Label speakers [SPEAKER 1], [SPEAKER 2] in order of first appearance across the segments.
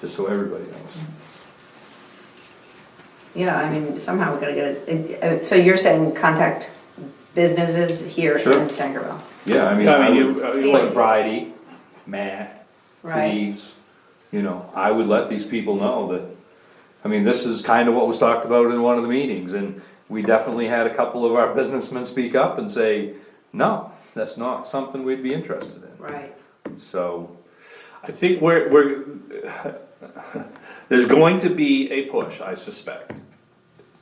[SPEAKER 1] just so everybody knows.
[SPEAKER 2] Mm.
[SPEAKER 3] Yeah, I mean, somehow we gotta get it- it, uh, so you're saying contact businesses here in
[SPEAKER 1] Sure.
[SPEAKER 3] Sangerville,
[SPEAKER 1] Yeah, I mean,
[SPEAKER 4] I
[SPEAKER 1] I
[SPEAKER 4] mean,
[SPEAKER 1] would,
[SPEAKER 4] you- uh, you-
[SPEAKER 1] like Bridie, Matt,
[SPEAKER 3] right?
[SPEAKER 1] Cleves, you know, I would let these people know that, I mean, this is kind of what was talked about in one of the meetings, and we definitely had a couple of our businessmen speak up and say, no, that's not something we'd be interested
[SPEAKER 3] Right,
[SPEAKER 1] in, so,
[SPEAKER 4] I think we're, we're, there's going to be a push, I suspect,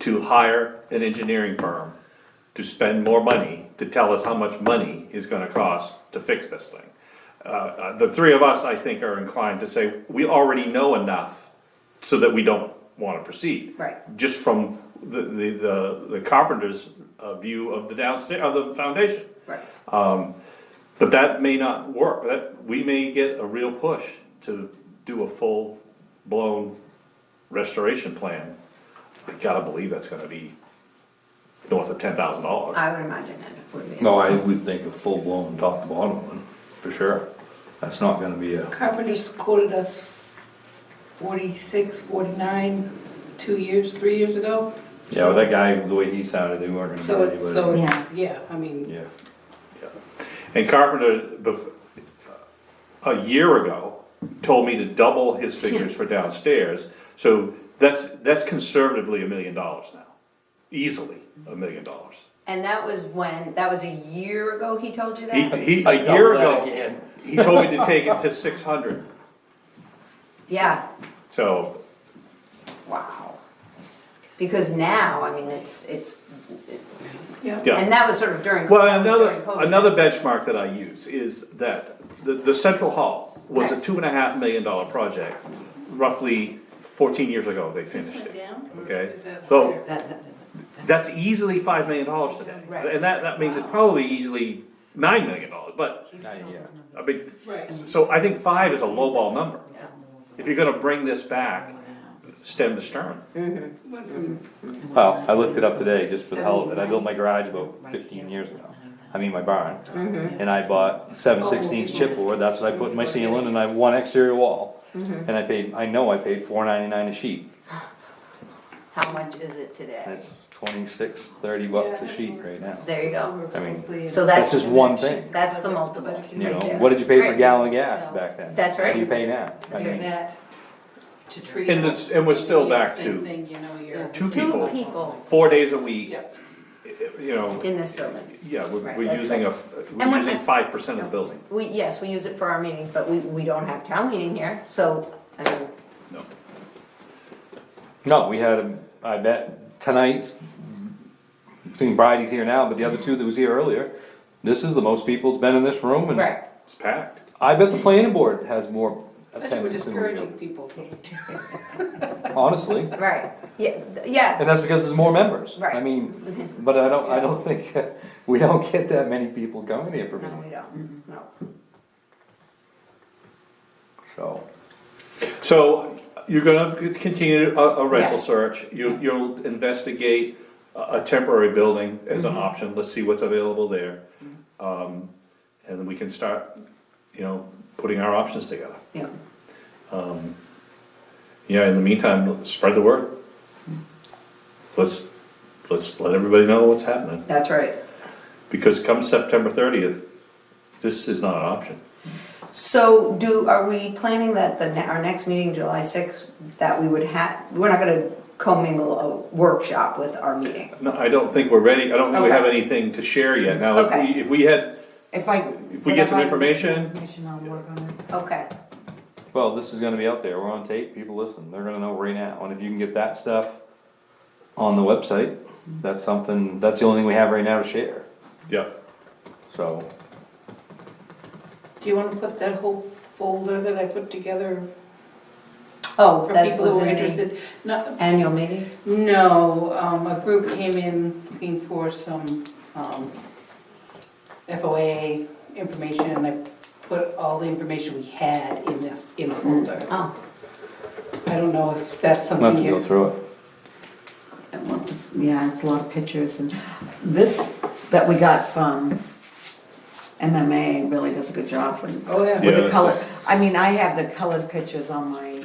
[SPEAKER 4] to hire an engineering firm to spend more money, to tell us how much money is gonna cost to fix this thing. Uh, Uh, the three of us, I think, are inclined to say, we already know enough so that we don't wanna proceed.
[SPEAKER 3] Right.
[SPEAKER 4] Just from the, the, the- the carpenter's uh, view of the downstairs, of the foundation.
[SPEAKER 3] right.
[SPEAKER 4] But that may not work, that, we may get a real push to do a full-blown restoration plan. I gotta believe that's gonna be north of ten thousand dollars.
[SPEAKER 3] I would imagine it would be.
[SPEAKER 1] no, I would think a full-blown top to bottom one, for sure. That's not gonna be a,
[SPEAKER 2] Carpenters quoted us 46, 49, two years, three years ago.
[SPEAKER 1] yeah, with that guy, the way he sounded, they weren't
[SPEAKER 2] So
[SPEAKER 1] gonna get
[SPEAKER 2] it's, so
[SPEAKER 1] anybody.
[SPEAKER 2] it's, yeah, I mean,
[SPEAKER 1] Yeah,
[SPEAKER 4] And Carpenter, bef- a year ago, told me to double his figures for downstairs, so that's, that's conservatively a million dollars now. Easily a million dollars.
[SPEAKER 3] And that was when, that was a year ago he told you
[SPEAKER 4] He,
[SPEAKER 3] that?
[SPEAKER 4] he,
[SPEAKER 1] I
[SPEAKER 4] a year
[SPEAKER 1] doubled that
[SPEAKER 4] ago,
[SPEAKER 1] again.
[SPEAKER 4] he told me to take it to six hundred,
[SPEAKER 3] Yeah,
[SPEAKER 4] so
[SPEAKER 3] wow. Because now, I mean, it's, it's,
[SPEAKER 2] yeah.
[SPEAKER 4] Yeah.
[SPEAKER 3] and that was sort of during.
[SPEAKER 4] Well,
[SPEAKER 3] that was
[SPEAKER 4] another,
[SPEAKER 3] during COVID.
[SPEAKER 4] another benchmark that I use is that the, the central hall was a two and a half million dollar project. Roughly fourteen years ago, they finished
[SPEAKER 2] went
[SPEAKER 4] it,
[SPEAKER 2] down, or
[SPEAKER 4] okay?
[SPEAKER 2] is that
[SPEAKER 4] So,
[SPEAKER 5] That- that-
[SPEAKER 4] that's easily five million dollars today,
[SPEAKER 3] Right.
[SPEAKER 4] and that, that means it's probably easily nine million dollars, but,
[SPEAKER 1] not yet.
[SPEAKER 4] I mean,
[SPEAKER 2] Right.
[SPEAKER 4] so I think five is a lowball number. If you're gonna bring this back, stem the stern.
[SPEAKER 2] Went from
[SPEAKER 1] Well, I looked it up today, just for the hell of it, I built my garage about fifteen years ago, I mean my barn. And I bought seven sixteenths
[SPEAKER 3] Oh.
[SPEAKER 1] chipboard, that's what I put in my ceiling, and I have one exterior wall.
[SPEAKER 3] Mm-hmm.
[SPEAKER 1] And I paid, I know I paid four ninety-nine a sheet,
[SPEAKER 3] How much is it today?
[SPEAKER 1] that's twenty-six, thirty bucks a sheet right now.
[SPEAKER 3] There you go.
[SPEAKER 2] over
[SPEAKER 1] I mean,
[SPEAKER 2] closely
[SPEAKER 3] So
[SPEAKER 1] That's
[SPEAKER 3] that's,
[SPEAKER 1] just one thing,
[SPEAKER 3] that's the multiple.
[SPEAKER 1] you know, what did you pay for a gallon of gas back then?
[SPEAKER 3] That's
[SPEAKER 1] What do you
[SPEAKER 3] right.
[SPEAKER 1] pay now? I
[SPEAKER 3] That's
[SPEAKER 2] and
[SPEAKER 1] mean,
[SPEAKER 2] That to treat.
[SPEAKER 4] And it's, and we're still back
[SPEAKER 2] Same
[SPEAKER 4] to
[SPEAKER 2] thing, you know, you're.
[SPEAKER 5] Yeah.
[SPEAKER 4] two
[SPEAKER 3] Two
[SPEAKER 4] people,
[SPEAKER 3] people
[SPEAKER 4] four days a week,
[SPEAKER 2] Yeah.
[SPEAKER 4] you know.
[SPEAKER 3] in this building.
[SPEAKER 4] Yeah, we're,
[SPEAKER 3] Right,
[SPEAKER 4] we're
[SPEAKER 3] that's
[SPEAKER 4] using a,
[SPEAKER 3] right. And
[SPEAKER 4] we're
[SPEAKER 3] we're
[SPEAKER 4] using
[SPEAKER 3] not-
[SPEAKER 4] five percent of the building.
[SPEAKER 3] We, yes, we use it for our meetings, but we, we don't have town meeting here, so, I mean,
[SPEAKER 4] No.
[SPEAKER 1] No, we had, a- I bet, tonight's, between Bridie's here now, but the other two that was here earlier, this is the most people that's been in this room and
[SPEAKER 3] right.
[SPEAKER 4] It's packed.
[SPEAKER 1] I bet the planning board has more
[SPEAKER 2] That's what we're
[SPEAKER 1] attendance than we
[SPEAKER 2] discouraging
[SPEAKER 1] do,
[SPEAKER 2] people. so-
[SPEAKER 1] honestly.
[SPEAKER 3] Right, yeah, th- yeah,
[SPEAKER 1] And that's because there's more members. I
[SPEAKER 3] Right.
[SPEAKER 1] mean, but I don't, I don't think, we don't get that many people coming here for
[SPEAKER 3] no, we
[SPEAKER 1] meetings,
[SPEAKER 3] don't, no.
[SPEAKER 1] so.
[SPEAKER 4] So you're gonna continue a, a rental
[SPEAKER 3] Yes.
[SPEAKER 4] search, you, you'll investigate a, a temporary building as an option, let's see what's available there. Um, and we can start, you know, putting our options together.
[SPEAKER 3] Yeah,
[SPEAKER 4] Yeah, in the meantime, spread the word. Let's, let's let everybody know what's happening,
[SPEAKER 3] that's right.
[SPEAKER 4] because come September thirtieth, this is not an option.
[SPEAKER 3] So do, are we planning that the, ne- our next meeting, July sixth, that we would have, we're not gonna commingle a workshop with our meeting?
[SPEAKER 4] No, I don't think we're ready, I don't think we have
[SPEAKER 3] Okay.
[SPEAKER 4] anything to share yet. Now, if
[SPEAKER 3] Okay.
[SPEAKER 4] we, if we had,
[SPEAKER 5] If I.
[SPEAKER 4] If we get
[SPEAKER 5] whatever
[SPEAKER 4] some
[SPEAKER 5] I-
[SPEAKER 4] information-
[SPEAKER 5] Information, I'll work on it.
[SPEAKER 3] Okay,
[SPEAKER 1] Well, this is gonna be out there, we're on tape, people listen, they're gonna know right now, and if you can get that stuff on the website, that's something, that's the only thing we have right now to share,
[SPEAKER 4] yeah,
[SPEAKER 1] so.
[SPEAKER 2] Do you wanna put that whole folder that I put together
[SPEAKER 3] oh,
[SPEAKER 2] for
[SPEAKER 3] that
[SPEAKER 2] people
[SPEAKER 3] was
[SPEAKER 2] who are
[SPEAKER 3] in the
[SPEAKER 2] interested? Not,
[SPEAKER 3] annual meeting?
[SPEAKER 2] No, um, a group came in looking for some, um, FOA information, and I put all the information we had in the, in the folder.
[SPEAKER 3] Oh,
[SPEAKER 2] I don't know if that's
[SPEAKER 1] We'll have
[SPEAKER 2] something
[SPEAKER 1] to go
[SPEAKER 2] you.
[SPEAKER 1] through it.
[SPEAKER 5] And what was- Yeah, it's a lot of pictures and this that we got from MMA really does a good job when,
[SPEAKER 2] Oh, yeah.
[SPEAKER 4] Yeah,
[SPEAKER 5] with the
[SPEAKER 4] that's
[SPEAKER 5] color. I mean, I have the colored pictures on my